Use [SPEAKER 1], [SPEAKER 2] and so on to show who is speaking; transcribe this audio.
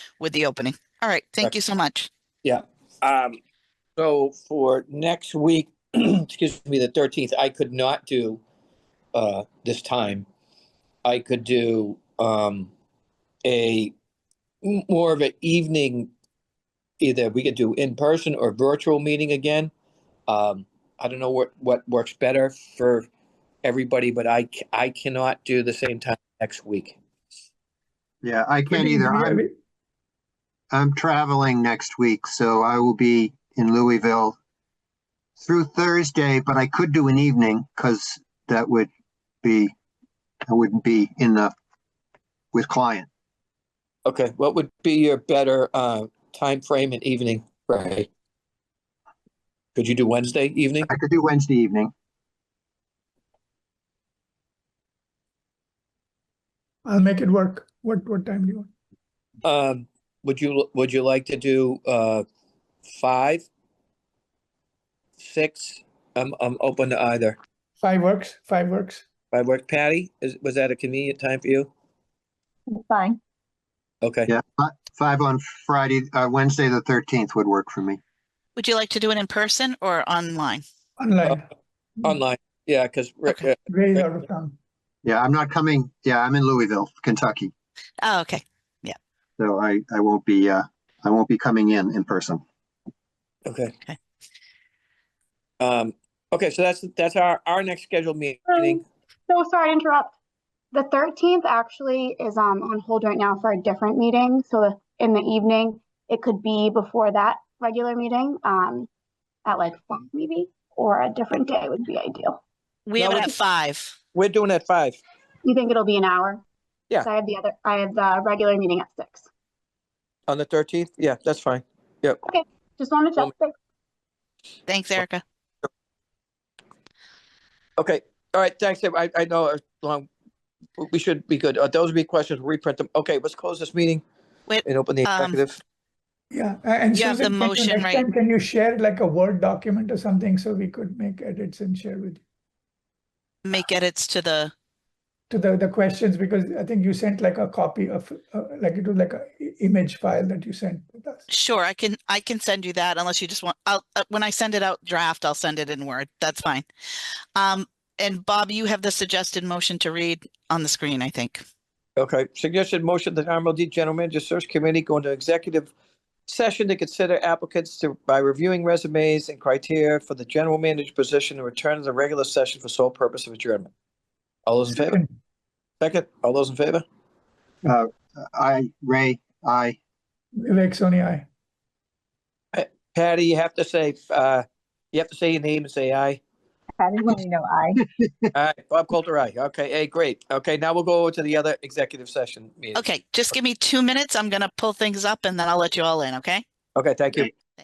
[SPEAKER 1] with the opening. All right, thank you so much.
[SPEAKER 2] Um, so for next week, excuse me, the thirteenth, I could not do, uh, this time. I could do, um, a, m- more of an evening, either we could do in person or virtual meeting again. Um, I don't know what, what works better for everybody, but I, c- I cannot do the same time next week.
[SPEAKER 3] Yeah, I can't
[SPEAKER 4] Maybe
[SPEAKER 3] either.
[SPEAKER 4] you-
[SPEAKER 3] I'm, I'm traveling next week, so I will be in Louisville through Thursday, but I could do an evening because that would be, I wouldn't be in the, with client.
[SPEAKER 2] Okay, what would be your better, uh, frame and evening, Right. Could you do Wednesday evening?
[SPEAKER 3] I could do Wednesday evening.
[SPEAKER 4] I'll make it work. What, what time do you want?
[SPEAKER 2] Um, would you, would you like to do, uh, five? Six? I'm, I'm open to either.
[SPEAKER 4] Five works, five works.
[SPEAKER 2] I work Patty, is, was that a convenient time for you?
[SPEAKER 5] Fine.
[SPEAKER 2] Okay,
[SPEAKER 3] Yeah, fi- five on Friday, uh, Wednesday, the thirteenth would work for me.
[SPEAKER 1] Would you like to do it in person or online?
[SPEAKER 4] Online,
[SPEAKER 2] online, yeah, cause Rick,
[SPEAKER 1] Okay.
[SPEAKER 2] uh,
[SPEAKER 4] Ray's out of town.
[SPEAKER 3] Yeah, I'm not coming, yeah, I'm in Louisville, Kentucky,
[SPEAKER 1] Oh, okay.
[SPEAKER 3] so I, I won't be, uh, I won't be coming in, in person.
[SPEAKER 2] okay.
[SPEAKER 1] Okay.
[SPEAKER 2] Um, okay, so that's, that's our, our next scheduled meeting.
[SPEAKER 6] Um, So sorry to interrupt. The thirteenth actually is um on hold right now for a different meeting, so if- in the evening, it could be before that regular meeting, um, at like one maybe, or a different day would be ideal.
[SPEAKER 1] We
[SPEAKER 2] No,
[SPEAKER 1] have it
[SPEAKER 2] we
[SPEAKER 1] at
[SPEAKER 2] can-
[SPEAKER 1] five.
[SPEAKER 2] We're doing at five.
[SPEAKER 6] You think it'll be an hour?
[SPEAKER 2] Yeah.
[SPEAKER 6] 'Cause I have the other, I have the regular meeting at six.
[SPEAKER 2] On the thirteenth? Yeah, that's fine.
[SPEAKER 6] Just wanted to
[SPEAKER 2] Well,
[SPEAKER 6] check. thanks.
[SPEAKER 1] Thanks, Erica.
[SPEAKER 2] Okay, all right, thanks. I, I know, it's long, we should be good. Uh, Those would be questions, We'll reprint them. Okay, let's close this meeting.
[SPEAKER 1] Wait,
[SPEAKER 2] And open the
[SPEAKER 1] um,
[SPEAKER 2] executive.
[SPEAKER 4] Yeah, a- and
[SPEAKER 1] You have the
[SPEAKER 4] Susan, can you
[SPEAKER 1] motion,
[SPEAKER 4] next
[SPEAKER 1] right?
[SPEAKER 4] time, can you share like a Word document or something so we could make edits and share with you?
[SPEAKER 1] Make edits to the,
[SPEAKER 4] To the, the questions, because I think you sent like a copy of, uh, like it was like a i- image file that you sent with us.
[SPEAKER 1] sure, I can, I can send you that unless you just want, I'll, uh, when I send it out draft, I'll send it in Word. That's fine. Um, and Bob, you have the suggested motion to read on the screen, I think.
[SPEAKER 2] Okay, suggested motion that RMLD General Manager Search Committee go into executive session to consider applicants to, by reviewing resumes and criteria for the general manager position and return to the regular session for sole purpose of adjournment. All those in favor?
[SPEAKER 4] Second.
[SPEAKER 2] Second, all those in favor?
[SPEAKER 3] I, Ray, I,
[SPEAKER 4] Vivek Soni, aye.
[SPEAKER 2] Patty, you have to say, uh, you have to say your name and say aye.
[SPEAKER 5] Patty Bonino, aye.
[SPEAKER 2] All right, Bob Coulter, aye. Okay, hey, great. Okay, now we'll go to the other executive session meeting.
[SPEAKER 1] Okay, just give me two minutes. I'm gonna pull things up and then I'll let you all in, okay?
[SPEAKER 2] Okay, thank you.
[SPEAKER 3] Okay.